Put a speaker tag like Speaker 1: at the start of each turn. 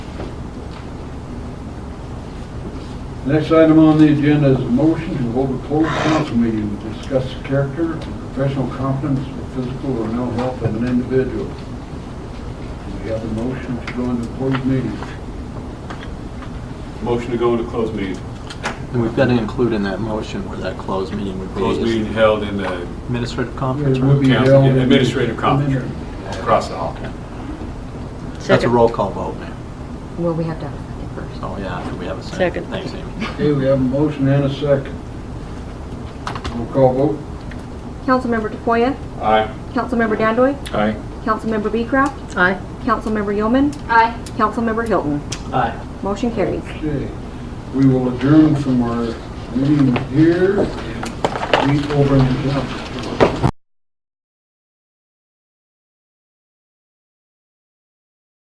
Speaker 1: Next item on the agenda is a motion to hold a closed council meeting to discuss the character, professional competence, or physical or mental health of an individual. Do we have a motion to go into closed meeting?
Speaker 2: Motion to go into closed meeting.
Speaker 3: And we've got to include in that motion where that closed meeting would be.
Speaker 2: Closed meeting held in the
Speaker 3: Administrative conference
Speaker 1: It
Speaker 3: room?
Speaker 1: would be
Speaker 2: Council,
Speaker 1: held in-
Speaker 2: administrative conference. across the hall.
Speaker 3: That's a
Speaker 4: Second.
Speaker 3: roll call vote, ma'am.
Speaker 5: Well, we have to have it first.
Speaker 3: So, yeah, after we have a second.
Speaker 4: Second.
Speaker 3: Thanks, Amy.
Speaker 1: Okay, we have a motion and a second. Roll call vote?
Speaker 6: Councilmember DePoya,
Speaker 2: Aye.
Speaker 6: Councilmember Dandoy,
Speaker 2: Aye.
Speaker 6: Councilmember Beecraft,
Speaker 4: Aye.
Speaker 6: Councilmember Yeoman. Aye. Councilmember Hilton.
Speaker 3: Aye.
Speaker 6: Motion carries.
Speaker 1: Okay, we will adjourn from our meeting here and meet over in the council.